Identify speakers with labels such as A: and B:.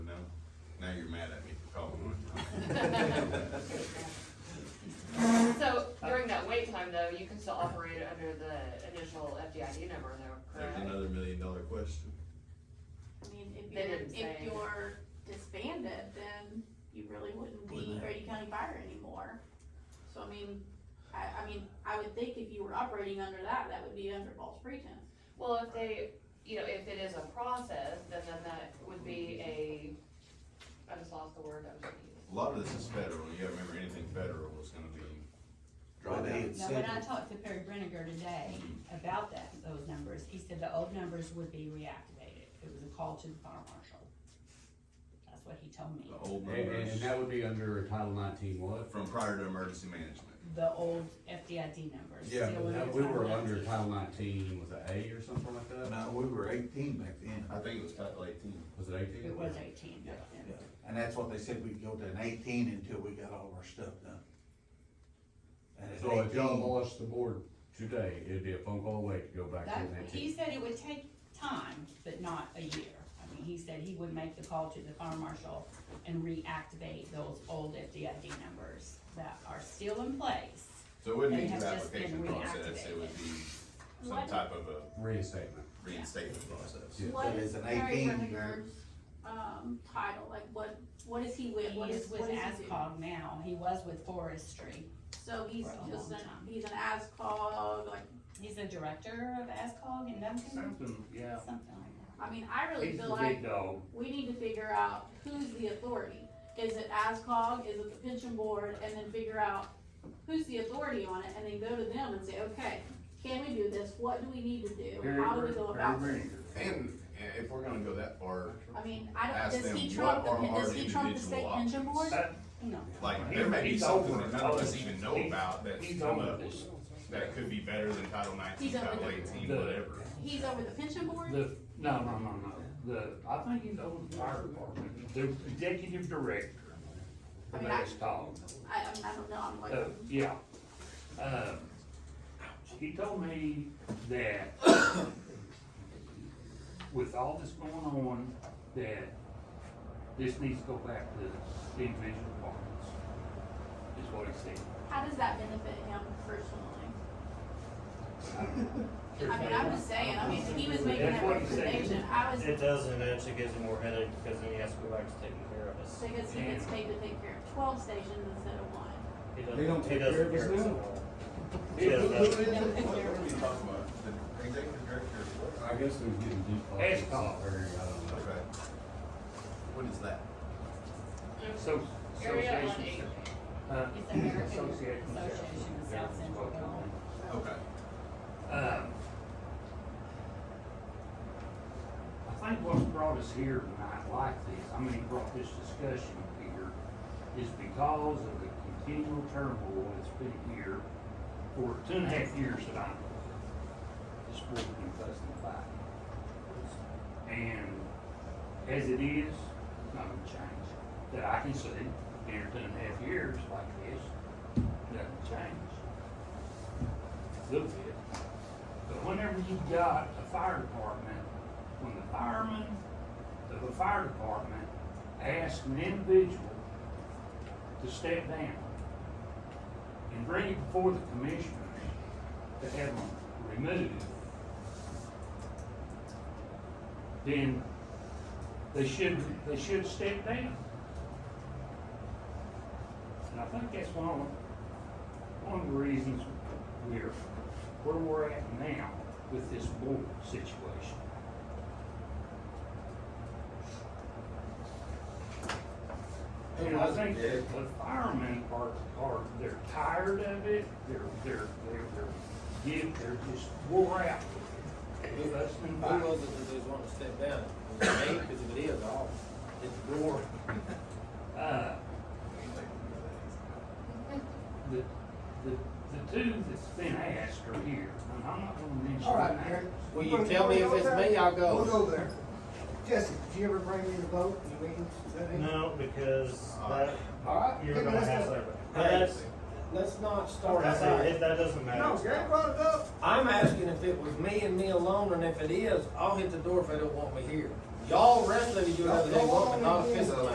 A: mad at me for calling
B: So during that wait time though, you can still operate it under the initial FDID number though,
A: There's
B: correct?
A: another million dollar question.
C: I mean, if
B: They
C: you're,
B: didn't say
C: if you're disbanded, then you really wouldn't be
A: Wouldn't.
C: Grady County Fire anymore. So I mean, I, I mean, I would think if you were operating under that, that would be under false pretense.
B: Well, if they, you know, if it is a process, then then that would be a, I just lost the word I was gonna use.
A: A lot of this is federal, you gotta remember anything federal is gonna be
D: Well,
A: drawn
D: they
A: out.
D: had
E: Now, when I
D: said,
E: talked to Perry Brenniger today about that, those numbers, he said the old numbers would be reactivated. It was a call to the fire marshal. That's what he told me.
A: The old
F: And, and-
A: numbers
F: and that would be under Title nineteen what?
A: from prior to emergency management.
E: The old FDID numbers.
F: Yeah,
E: still
F: but
E: under
F: that- we were
E: Title
F: under
E: 19.
F: Title nineteen, was it A or something like that?
D: no, we were eighteen back then,
A: I think it was title eighteen.
F: Was it eighteen?
E: It was eighteen back
D: Yeah,
E: then.
D: and that's what they said, we'd go to an eighteen until we got all of our stuff done. And at
F: So if y'all
D: 18
F: abolished the board today, it'd be a phone call away to go back
E: That,
F: to
E: he
F: nineteen.
E: said it would take time, but not a year. I mean, he said he would make the call to the fire marshal and reactivate those old FDID numbers that are still in place.
A: So it wouldn't
E: They
A: be
E: have
A: through
E: just been
A: application process, it
E: reactivated.
A: would be some
C: What-
A: type of a
F: Reinstatement.
A: reinstatement process.
F: Yeah.
C: What
D: but
C: is
D: it's an
C: Harry
D: 18
C: Renninger's, um, title, like what, what is he with,
E: He
C: what is,
E: is with
C: what is he do?
E: ASCOG now. He was with forestry.
C: So he's
E: for a
C: just an,
E: long time.
C: he's an ASCOG, like,
E: He's the director of ASCOG and Duncan,
G: Something, yeah.
E: something like
C: I mean, I really
G: He's
C: feel
G: the
C: like
G: big dog.
C: we need to figure out who's the authority. Is it ASCOG, is it the pension board, and then figure out who's the authority on it, and then go to them and say, okay, can we do this, what do we need to do,
G: Harry
C: how do we
G: Br-
C: go
G: Harry
C: about this?
G: Brenninger.
A: And i- if we're gonna go that far,
C: I mean, I
A: Ask
C: don't, does he
A: them,
C: trump, the
A: what
C: pen-
A: are
C: does
A: our
C: he trump the
A: individual
C: state pension board?
A: options?
G: That-
E: that. No.
A: like, there may be
G: He's
A: something that
G: over it.
A: none of us even know
G: He's-
A: about that's
G: He's
A: come
G: over
A: up,
G: this.
A: that could be better than title nineteen,
C: He's over
A: title
C: the-
A: eighteen,
G: the-
A: whatever.
C: He's over the pension board?
G: The, no, no, no, no, the, I think he's over the fire department, the executive director.
C: I mean,
G: That's
C: I-
G: called,
C: I, I mean, I don't know, I'm
G: uh,
C: like,
G: yeah. Uh, he told me that with all this going on, that this needs to go back to the individual departments, is what he said.
C: how does that benefit him personally?
G: I mean,
C: I mean, I'm just saying, I mean, he was making that
G: That's what he said.
C: recommendation, I was,
H: It doesn't, it actually gives him more headache because then he has to go back to taking care of us.
C: because he gets paid to take care of twelve stations instead of one.
H: He
F: They don't
H: doesn't, he
F: take care
H: doesn't
F: of us
H: care us
F: now.
H: at all. He does that.
A: The executive director is what?
F: I guess they're getting default.
G: It's called.
F: Or, I don't know.
A: Okay. What is that?
G: So,
B: Area on
G: association.
B: eight.
G: uh,
E: It's American
G: association.
E: Association of South Central Illinois.
A: Okay.
G: Um, I think what's brought us here tonight like this, I mean, brought this discussion here, is because of the continual turmoil that's been here for two and a half years that I'm, this board's been fussing and fighting. And as it is, not gonna change, that I can see, here two and a half years like this, nothing changed little bit. But whenever you've got a fire department, when the firemen of a fire department ask an individual to step down and bring it before the commissioners to have them removed, then they should, they should step down. And I think that's one of, one of the reasons we're, where we're at now with this board situation. And I think that the firemen are, are, they're tired of it, they're, they're, they're, they're, get- they're just wore out. with us and
I: Who was it that they was wanting to step down? Was it me? Because if it is, I'll, it's the door.
G: Uh, the, the, the two that's been asked are here, and I'm not gonna mention.
J: All right,
G: names.
J: Eric.
I: Will you tell me if it's me? I'll go.
J: We'll go there. Jesse, did you ever bring me the boat in the meetings? today?
H: No, because that,
J: All right.
H: you're
J: then
H: gonna
J: let's
H: have
J: go.
H: that. But that's,
I: Let's not start
H: that's, not-
I: that.
H: it- that doesn't
J: No, Gary
H: matter.
J: brought it up.
I: I'm asking if it was me and me alone, and if it is, I'll hit the door if they don't want me here. Y'all rest of you do whatever they want, but not if it's